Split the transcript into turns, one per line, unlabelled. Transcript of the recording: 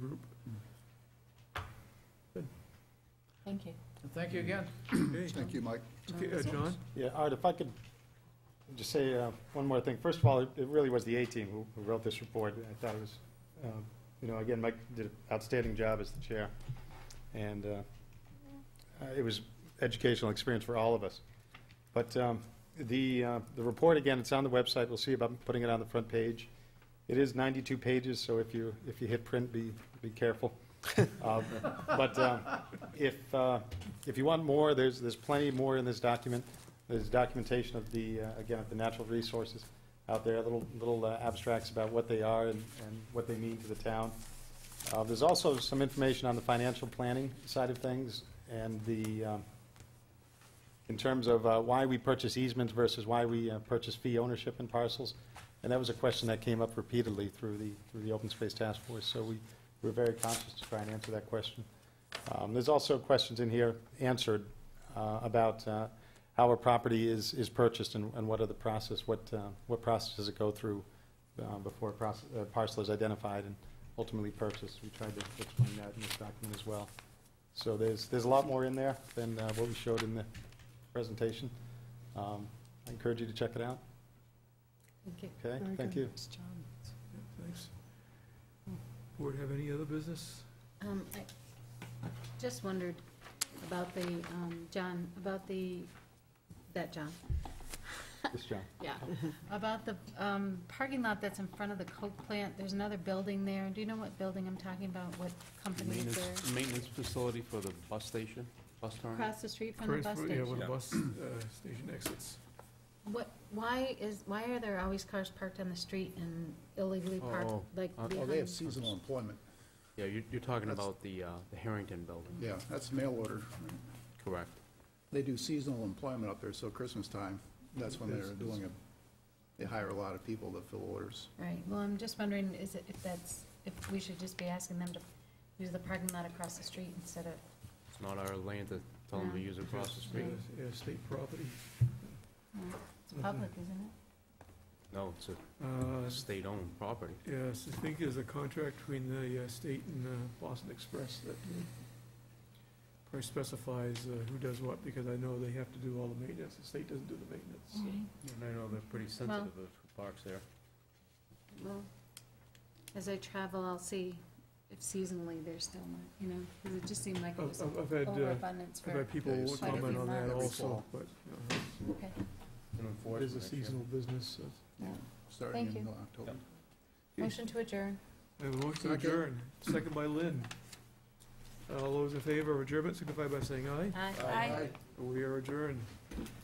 Thank you again.
Thank you, Mike.
Okay, uh, John?
Yeah, Art, if I could just say uh, one more thing. First of all, it it really was the A-team who who wrote this report. I thought it was, um, you know, again, Mike did an outstanding job as the chair, and uh, uh, it was educational experience for all of us. But um, the, uh, the report, again, it's on the website. We'll see about putting it on the front page. It is 92 pages, so if you, if you hit print, be, be careful. Uh, But um, if, uh, if you want more, there's, there's plenty more in this document. There's documentation of the, uh, again, of the natural resources out there, little, little uh, abstracts about what they are and, and what they mean to the town. Uh, There's also some information on the financial planning side of things and the, um, in terms of uh, why we purchase easements versus why we uh, purchase fee ownership in parcels. And that was a question that came up repeatedly through the, through the Open Space Task Force, so we were very conscious to try and answer that question. Um, There's also questions in here answered uh, about uh, how a property is, is purchased and and what are the process, what, uh, what process does it go through uh, before a proce- a parcel is identified and ultimately purchased. We tried to explain that in this document as well. So there's, there's a lot more in there than uh, what we showed in the presentation. Um, I encourage you to check it out,
Thank you.
okay?
Very
Thank
good.
you.
Thanks, John.
Yeah, Thanks. Board have any other business?
Um, I just wondered about the, um, John, about the, that John,
Yes, John.
yeah, about the um, parking lot that's in front of the Coke plant, there's another building there, do you know what building I'm talking about, what company is
Maintenance,
there?
maintenance facility for the bus station, bus terminal.
Across the street from the bus
Transfer- Yeah, where
station?
the bus uh, station exits.
What, why is, why are there always cars parked on the street and illegally parked,
Oh,
like
oh,
Oh, they have
behind?
seasonal employment.
Yeah, you're, you're talking
That's-
about the, uh, the Harrington building,
Yeah, that's mail order.
correct?
They do seasonal employment up there, so Christmas time, that's when they're doing it. They hire a lot of people to fill orders.
Right, well, I'm just wondering, is it, if that's, if we should just be asking them to use the parking lot across the street instead of
It's not our land to tell them to
Yeah.
use across the street.
Yeah, Uh, Yeah, state property. Mm-hmm.
It's public, isn't it?
No, it's a
Uh,
state-owned property.
Yes, I think there's a contract between the uh, state and uh, Boston Express that uh, probably specifies uh, who does what, because I know they have to do all the maintenance, the state doesn't do the maintenance.
Mm-hmm.
so.
And I know they're pretty
sensitive
of parks there.
Well, as I travel, I'll see if seasonally they're still not, you know, because it just seemed like it
I've-
was
I've I've had, uh,
overabundance
I've
for,
had people
Yeah, you see
comment
every
on that
month.
Every
also,
fall.
but uh,
okay.
it is a seasonal business. so-
Starting
Thank
in
you.
October.
Motion to adjourn.
I have a motion to
Second.
adjourn, second by Lynn. All those in favor of adjournment signify by saying aye.
Aye.
Aye.
We are adjourned.